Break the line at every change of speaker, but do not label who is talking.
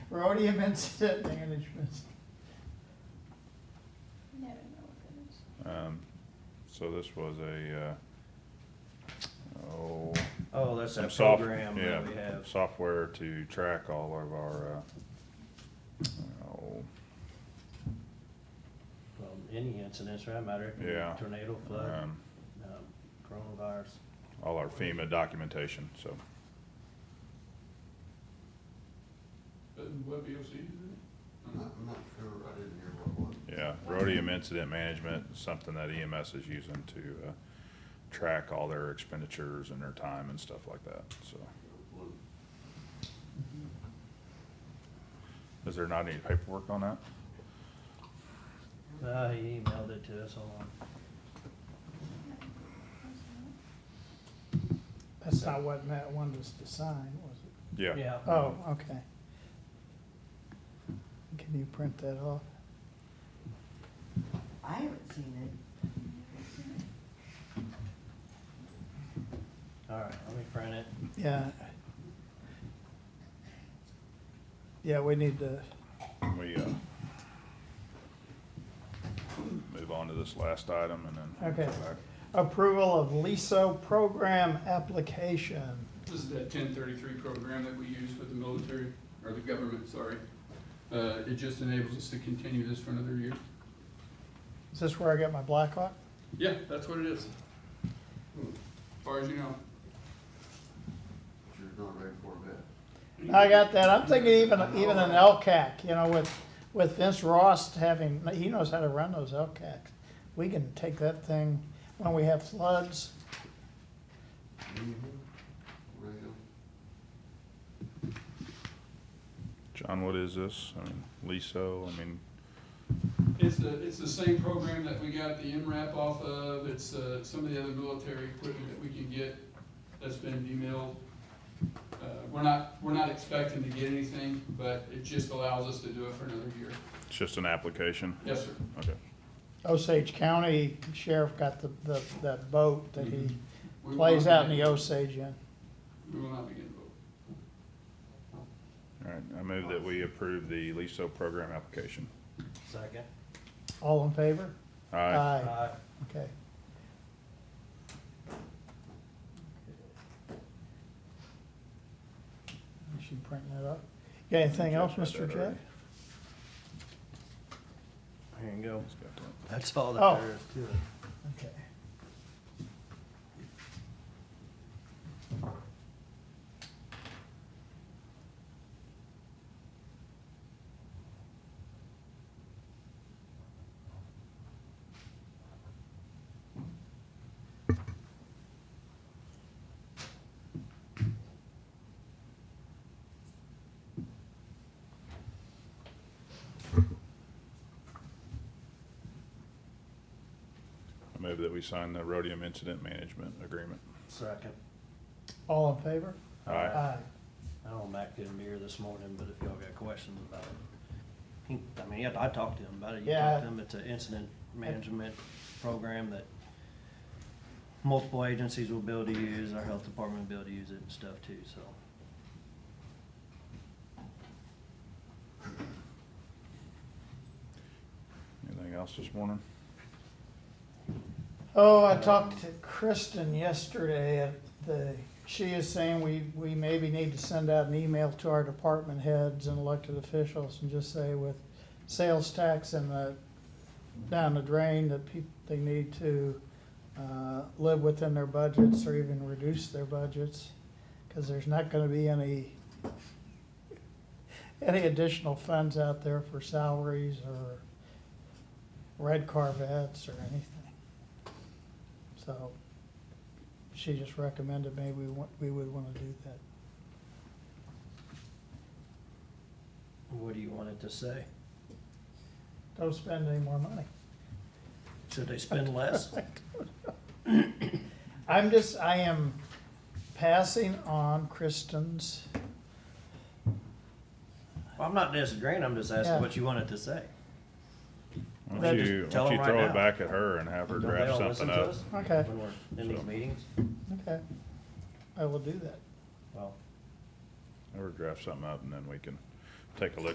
Rhodium Incident Management.
I don't know what that is.
Um, so this was a, uh, oh.
Oh, that's that
some soft-
program
yeah,
that we have.
Software to track all of our, uh, oh,
Well, Um, any incidents, right, matter,
Yeah.
tornado, flood,
um,
um, coronavirus.
all our FEMA documentation, so.
Doesn't WebEOC do
I'm not, I'm not sure, I didn't hear what was.
Yeah, Rhodium Incident Management, is something that EMS is using to, uh, track all their expenditures and their time and stuff like that, so. Is there not any paperwork on that?
Uh, he emailed it to us all.
That's not what Matt wanted us to sign, was it?
Yeah.
Yeah.
Oh, okay. Can you print that off?
I haven't seen it.
All right, let me print it.
Yeah. Yeah, we need to,
Can we, uh, move on to this last item and then?
Okay.
come back?
approval of LISO program application.
This is that ten thirty-three program that we use with the military, or the government, sorry. Uh, it just enables us to continue this for another year.
Is this where I got my Blackhawk?
Yeah, that's what it is.
Hmm.
Far as you know.
You're not ready for that.
I got that. I'm thinking even, even an LCAC, you know, with, with Vince Ross having, he knows how to run those LCACs. We can take that thing when we have floods.
Radio.
John, what is this? I mean, LISO, I mean,
It's the, it's the same program that we got the MRAP off of, it's, uh, some of the other military equipment that we can get that's been emailed. Uh, we're not, we're not expecting to get anything, but it just allows us to do it for another year.
it's just an application?
Yes, sir.
Okay.
Osage County Sheriff got the, the, that boat that he
We will
Mm-hmm.
plays
not
out
be
in the
getting-
Osage in.
We will not be getting vote.
All right, I move that we approve the LISO program application.
Second.
All in favor?
Aye.
Aye.
Okay. You should print that up. Got anything else,
Jeff had
Mr.
that
Jeff?
already.
Here you go.
He's got that.
That's all
Oh.
that there is to it.
Okay.
I move that we sign the Rhodium Incident Management Agreement.
Second.
All in favor?
Uh,
Aye.
Aye.
I know Mac didn't be here this morning, but if y'all got questions about it. he- I mean, yeah, I talked to him about it. You
Yeah.
talked to him, it's an incident management program that multiple agencies will be able to use, our health department will be able to use it and stuff too, so.
Anything else this morning?
Oh, I talked to Kristen yesterday at the, she is saying we, we maybe need to send out an email to our department heads and elected officials and just say with sales tax and the, down the drain, that people, they need to, uh, live within their budgets or even reduce their budgets. Cause there's not gonna be any, any additional funds out there for salaries or red Corvettes or anything. So she just recommended maybe we want, we would want to do that.
What do you want it to say?
Don't spend any more money.
Should they spend less?
I'm just, I am passing on Kristen's,
I'm not disagreeing, I'm just asking
Yeah.
what you want it to say.
Why
Well,
don't you,
just tell
why don't you
them right
throw it
now.
back at her and have her
Don't they
draft
all
something
listen to
up?
us
Okay.
When we're in these
So-
meetings?
okay, I will do that.
Well,
Have her draft something up and then we can take a look